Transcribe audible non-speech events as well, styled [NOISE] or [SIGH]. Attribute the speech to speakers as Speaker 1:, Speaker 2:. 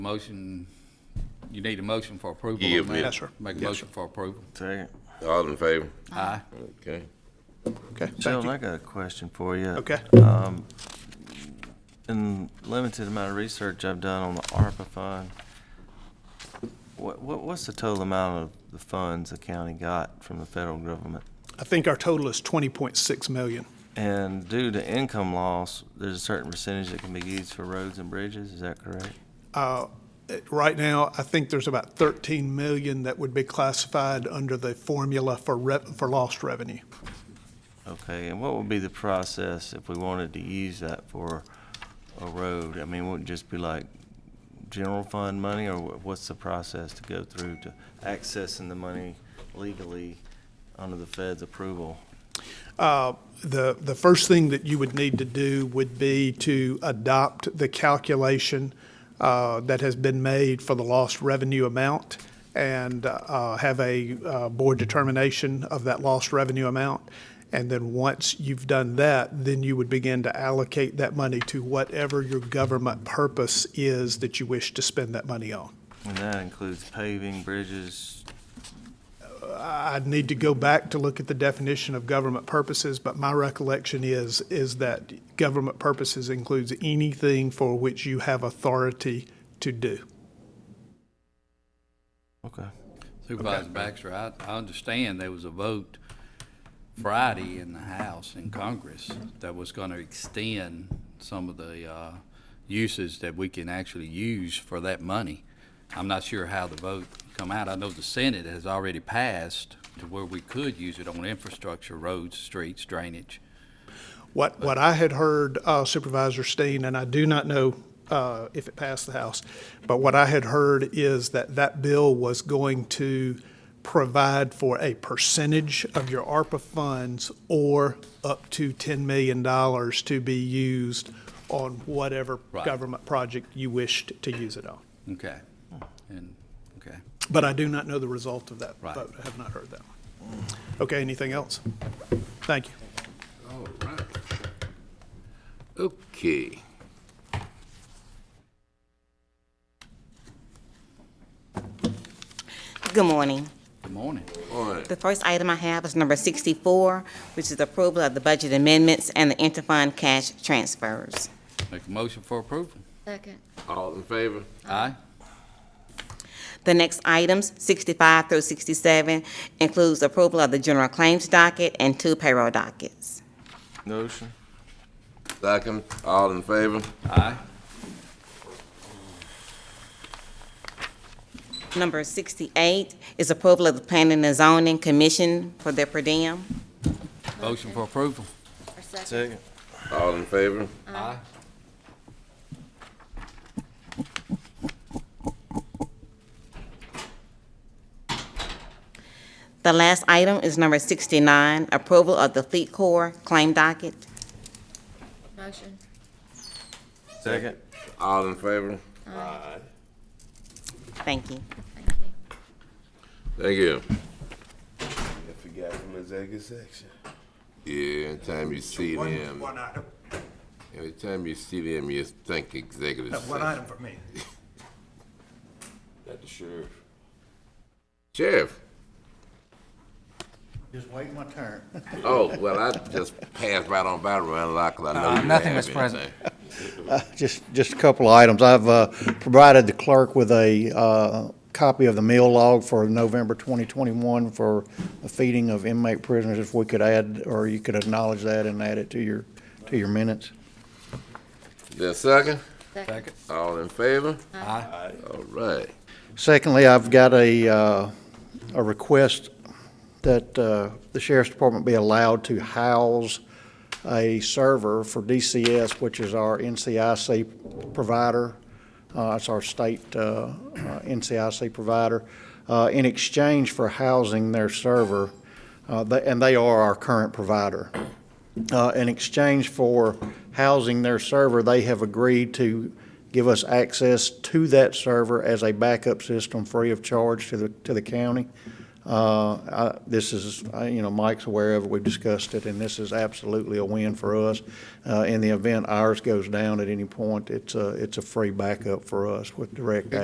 Speaker 1: Motion, you need a motion for approval.
Speaker 2: Yeah,
Speaker 1: on that?
Speaker 2: yeah.
Speaker 3: Yes, sir.
Speaker 1: Make a motion for approval.
Speaker 4: Second.
Speaker 2: All in favor?
Speaker 1: Aye.
Speaker 2: Okay.
Speaker 3: Okay, thank
Speaker 4: Sheldon,
Speaker 3: you.
Speaker 4: I got a question for you.
Speaker 3: Okay.
Speaker 4: In limited amount of research I've done on the ARPA fund, what, what, what's the total amount of the funds the county got from the federal government?
Speaker 3: I think our total is 20.6 million.
Speaker 4: And due to income loss, there's a certain percentage that can be used for roads and bridges, is that correct?
Speaker 3: Uh, it- Right now, I think there's about 13 million that would be classified under the formula for rev- for lost revenue.
Speaker 4: Okay, and what would be the process if we wanted to use that for a road? I mean, would it just be like general fund money, or wha- what's the process to go through to accessing the money legally under the Fed's approval?
Speaker 3: Uh, The, the first thing that you would need to do would be to adopt the calculation uh, that has been made for the lost revenue amount and uh, have a uh, board determination of that lost revenue amount. And then once you've done that, then you would begin to allocate that money to whatever your government purpose is that you wish to spend that money on.
Speaker 4: And that includes paving, bridges,
Speaker 3: I'd need to go back to look at the definition of government purposes, but my recollection is, is that government purposes includes anything for which you have authority to do.
Speaker 4: okay.
Speaker 1: Supervisor Baxter, I, I understand there was a vote Friday in the House in Congress that was gonna extend some of the, uh, uses that we can actually use for that money. I'm not sure how the vote come out. I know the Senate has already passed to where we could use it on infrastructure, roads, streets, drainage.
Speaker 3: What, what I had heard uh, Supervisor Steen, and I do not know uh, if it passed the House, but what I had heard is that that bill was going to provide for a percentage of your ARPA funds or up to $10 million to be used on whatever
Speaker 1: Right.
Speaker 3: government project you wished to use it on.
Speaker 1: Okay, and, okay.
Speaker 3: But I do not know the result of that
Speaker 1: Right.
Speaker 3: vote. I have not heard that one. Okay, anything else? Thank you.
Speaker 2: All right. Okay.
Speaker 5: Good morning.
Speaker 1: Good morning.
Speaker 2: All right.
Speaker 5: The first item I have is number 64, which is approval of the budget amendments and the interfund cash transfers.
Speaker 1: Make a motion for approval.
Speaker 6: Second.
Speaker 2: All in favor?
Speaker 1: Aye.
Speaker 5: The next items, 65 through 67, includes approval of the general claims docket and two payroll dockets.
Speaker 4: Motion?
Speaker 2: Second. All in favor?
Speaker 1: Aye.
Speaker 5: Number 68 is approval of the Planning and Zoning Commission for their per diem.
Speaker 1: Motion for approval.
Speaker 6: Or second.
Speaker 4: Second.
Speaker 2: All in favor?
Speaker 1: Aye.
Speaker 5: The last item is number 69, approval of the Fleet Corps claim docket.
Speaker 6: Motion.
Speaker 4: Second.
Speaker 2: All in favor?
Speaker 5: Thank you.
Speaker 6: Thank you.
Speaker 2: Thank you. I forgot from executive section. Yeah, anytime you see them,
Speaker 7: One item,
Speaker 2: every time you see them, you think executive
Speaker 7: no, one
Speaker 2: section.
Speaker 7: item for me.
Speaker 2: [LAUGHS] That the sheriff. Sheriff?
Speaker 7: Just waiting my turn. [LAUGHS]
Speaker 2: Oh, well, I just passed right on by around lot because I know you didn't
Speaker 8: Uh, nothing,
Speaker 2: have
Speaker 8: Mr. President.
Speaker 2: anything.
Speaker 9: Just, just a couple of items. I've uh, provided the clerk with a uh, copy of the meal log for November 2021 for the feeding of inmate prisoners, if we could add, or you could acknowledge that and add it to your, to your minutes.
Speaker 2: Is there a second?
Speaker 1: Second.
Speaker 2: All in favor?
Speaker 1: Aye.
Speaker 2: All right.
Speaker 9: Secondly, I've got a, uh, a request that uh, the sheriff's department be allowed to house a server for DCS, which is our NCIC provider. Uh, It's our state uh, uh, NCIC provider, uh, in exchange for housing their server. uh, they- And they are our current provider. Uh, In exchange for housing their server, they have agreed to give us access to that server as a backup system free of charge to the, to the county. Uh, I- This is, I- you know, Mike's aware of it, we've discussed it, and this is absolutely a win for us. Uh, In the event ours goes down at any point, it's a, it's a free backup for us with direct